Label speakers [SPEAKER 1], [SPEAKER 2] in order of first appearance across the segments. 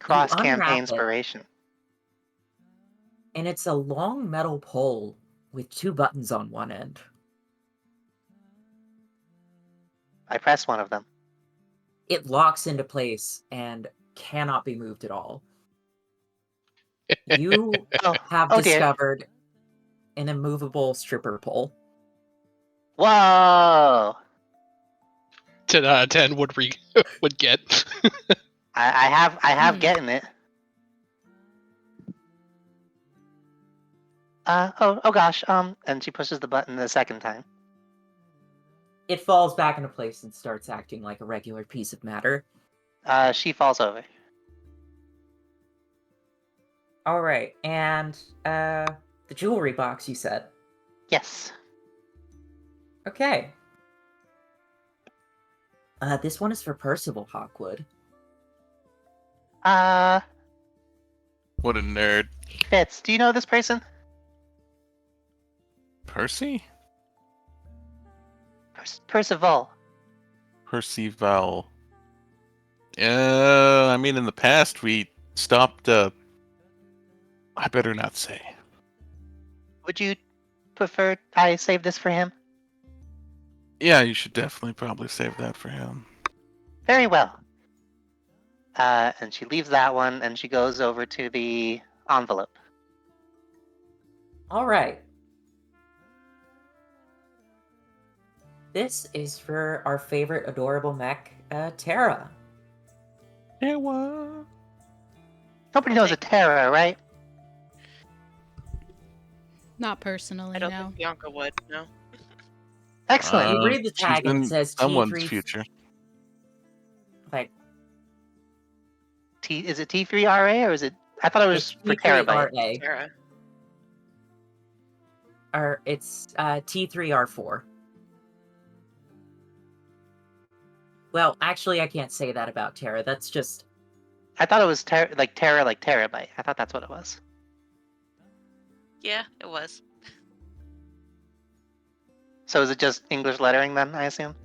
[SPEAKER 1] You
[SPEAKER 2] Cross campaign
[SPEAKER 1] unwrap it,
[SPEAKER 2] inspiration.
[SPEAKER 1] and it's a long metal pole with two buttons on one end.
[SPEAKER 2] I press one of them.
[SPEAKER 1] It locks into place and cannot be moved at all. You
[SPEAKER 2] Oh,
[SPEAKER 1] have
[SPEAKER 2] oh dear.
[SPEAKER 1] discovered an immovable stripper pole.
[SPEAKER 2] Whoa!
[SPEAKER 3] ten out of ten would re- would get.
[SPEAKER 2] I, I have I have
[SPEAKER 1] Hmm.
[SPEAKER 2] getting it. Uh oh oh gosh um and she pushes the button the second time.
[SPEAKER 1] It falls back into place and starts acting like a regular piece of matter.
[SPEAKER 2] Uh she falls over.
[SPEAKER 1] All right, and uh, the jewelry box you said.
[SPEAKER 2] Yes.
[SPEAKER 1] Okay. Uh, this one is for Percival Hawkwood.
[SPEAKER 2] Uh
[SPEAKER 4] What a nerd.
[SPEAKER 2] Fitz, do you know this person?
[SPEAKER 4] Percy?
[SPEAKER 2] Per- Percival.
[SPEAKER 4] Percival. Uh, I mean, in the past, we stopped, uh. I better not say.
[SPEAKER 2] Would you prefer I save this for him?
[SPEAKER 4] Yeah, you should definitely probably save that for him.
[SPEAKER 2] Very well. Uh, and she leaves that one and she goes over to the envelope.
[SPEAKER 1] All right. This is for our favorite adorable mech, uh, Tara.
[SPEAKER 4] Yeah, what?
[SPEAKER 2] Nobody knows a Terra, right?
[SPEAKER 5] Not personally,
[SPEAKER 6] I don't
[SPEAKER 5] no.
[SPEAKER 6] think Bianca would. No.
[SPEAKER 2] Excellent.
[SPEAKER 1] you
[SPEAKER 4] Uh,
[SPEAKER 1] read the
[SPEAKER 4] she's
[SPEAKER 1] tag and it
[SPEAKER 4] in
[SPEAKER 1] says
[SPEAKER 4] Someone's
[SPEAKER 1] T3
[SPEAKER 4] future.
[SPEAKER 1] Like
[SPEAKER 2] T is it T3RA or is it? I thought it was for terabyte.
[SPEAKER 1] T3RA,
[SPEAKER 6] Tara.
[SPEAKER 1] or it's uh, T3R4. Well, actually, I can't say that about Tara. That's just
[SPEAKER 2] I thought it was ter- like Terra, like terabyte. I thought that's what it was.
[SPEAKER 6] Yeah, it was.
[SPEAKER 2] So is it just English lettering then? I assume.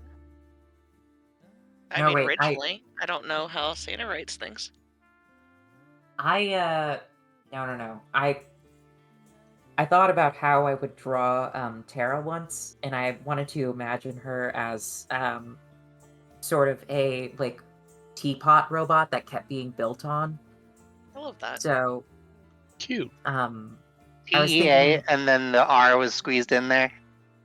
[SPEAKER 6] I
[SPEAKER 1] No,
[SPEAKER 6] mean,
[SPEAKER 1] wait, I-
[SPEAKER 6] originally, I... don't know how Santa writes things.
[SPEAKER 1] I uh no no no. I I thought about how I would draw um Tara once and I wanted to imagine her as um sort of a like teapot robot that kept being built on.
[SPEAKER 6] I love that.
[SPEAKER 1] So
[SPEAKER 3] Cute.
[SPEAKER 1] um I was
[SPEAKER 2] T E A,
[SPEAKER 1] thinking-
[SPEAKER 2] and then the R was squeezed in there.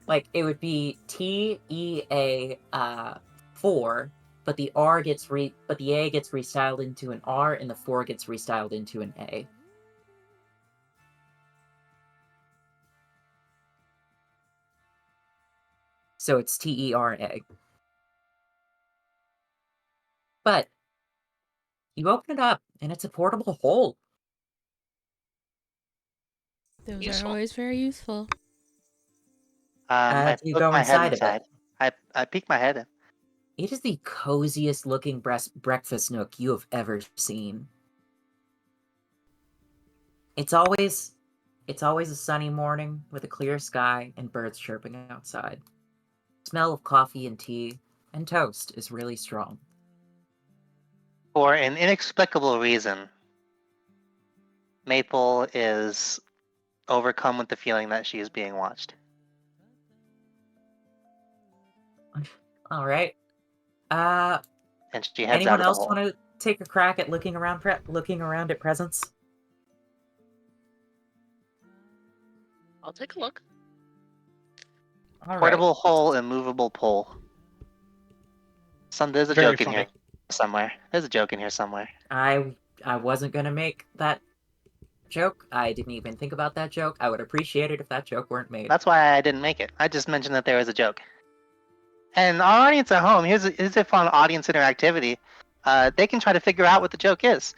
[SPEAKER 1] like it would be T E A uh four, but the R gets re but the A gets restyled into an R and the four gets restyled into an A. So it's T E R A. But you open it up and it's a portable hole.
[SPEAKER 5] Those
[SPEAKER 6] Useful.
[SPEAKER 5] are always very useful.
[SPEAKER 2] Um, I
[SPEAKER 1] do Uh, you
[SPEAKER 2] poked
[SPEAKER 1] go
[SPEAKER 2] my
[SPEAKER 1] inside
[SPEAKER 2] head
[SPEAKER 1] of it?
[SPEAKER 2] inside. I I peeked my head in.
[SPEAKER 1] It is the coziest looking breast breakfast nook you have ever seen. It's always it's always a sunny morning with a clear sky and birds chirping outside. Smell of coffee and tea and toast is really strong.
[SPEAKER 2] For an inexplicable reason, Maple is overcome with the feeling that she is being watched.
[SPEAKER 1] All right. Uh
[SPEAKER 2] And she heads out
[SPEAKER 1] anyone
[SPEAKER 2] of
[SPEAKER 1] else
[SPEAKER 2] the hole.
[SPEAKER 1] want to take a crack at looking around pre- looking around at presents?
[SPEAKER 6] I'll take a look.
[SPEAKER 1] All right.
[SPEAKER 2] Portable hole and movable pole. Some there's a
[SPEAKER 3] Very
[SPEAKER 2] joke in here
[SPEAKER 3] funny.
[SPEAKER 2] somewhere. There's a joke in here somewhere.
[SPEAKER 1] I I wasn't going to make that joke. I didn't even think about that joke. I would appreciate it if that joke weren't made.
[SPEAKER 2] That's why I didn't make it. I just mentioned that there was a joke. And our audience at home, here's a, here's a fun audience interactivity. Uh, they can try to figure out what the joke is.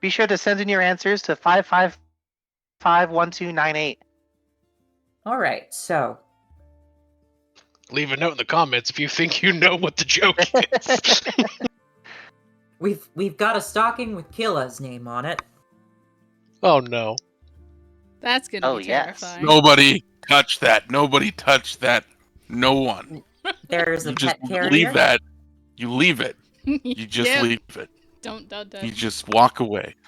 [SPEAKER 2] Be sure to send in your answers to five five five one two nine eight.
[SPEAKER 1] All right, so
[SPEAKER 3] Leave a note in the comments if you think you know what the joke is.
[SPEAKER 1] we've we've got a stocking with Kila's name on it.
[SPEAKER 3] oh no.
[SPEAKER 5] That's gonna
[SPEAKER 2] Oh,
[SPEAKER 5] be
[SPEAKER 2] yes.
[SPEAKER 5] terrifying.
[SPEAKER 4] Nobody touch that. Nobody touch that. No one.
[SPEAKER 1] There is a
[SPEAKER 4] you just
[SPEAKER 1] pet carrier.
[SPEAKER 4] leave that. You leave it.
[SPEAKER 5] You
[SPEAKER 4] You just
[SPEAKER 5] do.
[SPEAKER 4] leave it.
[SPEAKER 5] Don't, don't, don't.
[SPEAKER 4] You just walk away.